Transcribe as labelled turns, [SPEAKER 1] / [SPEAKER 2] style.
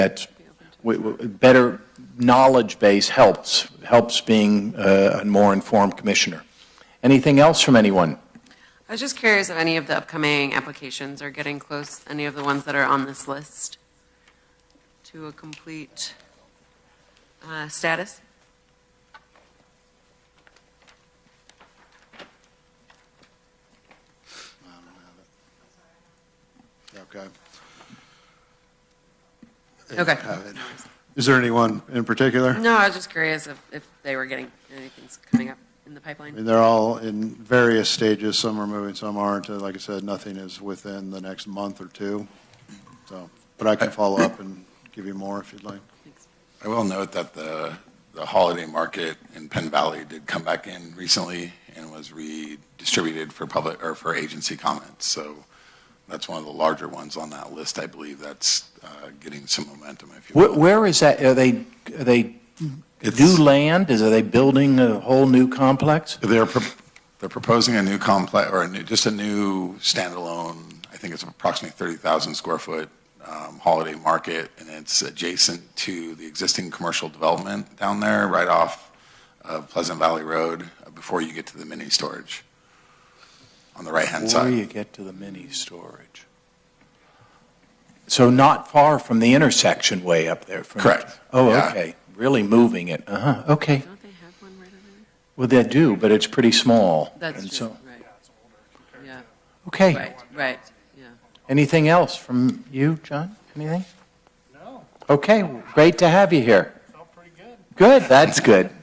[SPEAKER 1] that we- we- better knowledge base helps, helps being uh, a more informed commissioner. Anything else from anyone?
[SPEAKER 2] I was just curious if any of the upcoming applications are getting close, any of the ones that are on this list, to a complete uh, status?
[SPEAKER 3] I don't have it. Okay. I don't
[SPEAKER 2] Okay.
[SPEAKER 3] have it. Is there anyone in particular?
[SPEAKER 2] No, I was just curious if, if they were getting, anything's coming up in the
[SPEAKER 3] I
[SPEAKER 2] pipeline.
[SPEAKER 3] mean, they're all in various stages. Some are moving, some aren't. Uh, Like I said, nothing is within the next month or two. So, but I can follow up and give you more if you'd like.
[SPEAKER 4] I will note that the, the holiday market in Penn Valley did come back in recently and was redistributed for public, or for agency comments. So that's one of the larger ones on that list, I believe, that's uh, getting some momentum, if you
[SPEAKER 1] Where,
[SPEAKER 4] will.
[SPEAKER 1] where is that, are they, are they new
[SPEAKER 4] It's-
[SPEAKER 1] land? Is, are they building a whole new complex?
[SPEAKER 4] They're, pro- they're proposing a new complex, or a new, just a new standalone, I think it's approximately 30,000 square foot um, holiday market, and it's adjacent to the existing commercial development down there, right off of Pleasant Valley Road, uh, before you get to the mini storage on the right-hand
[SPEAKER 1] Before
[SPEAKER 4] side.
[SPEAKER 1] you get to the mini storage. So not far from the intersection way up there from.
[SPEAKER 4] Correct.
[SPEAKER 1] Oh,
[SPEAKER 4] Yeah.
[SPEAKER 1] okay. Really moving it. Uh-huh, okay.
[SPEAKER 2] Don't they have one right over
[SPEAKER 1] Well, they do, but it's pretty small.
[SPEAKER 2] there?
[SPEAKER 1] And
[SPEAKER 2] That's true,
[SPEAKER 1] so-
[SPEAKER 2] right. Yeah,
[SPEAKER 1] Okay.
[SPEAKER 2] right, right, yeah.
[SPEAKER 1] Anything else from you, John? Anything? No. Okay, great to have you here.
[SPEAKER 5] Felt pretty good.
[SPEAKER 1] Good, that's good.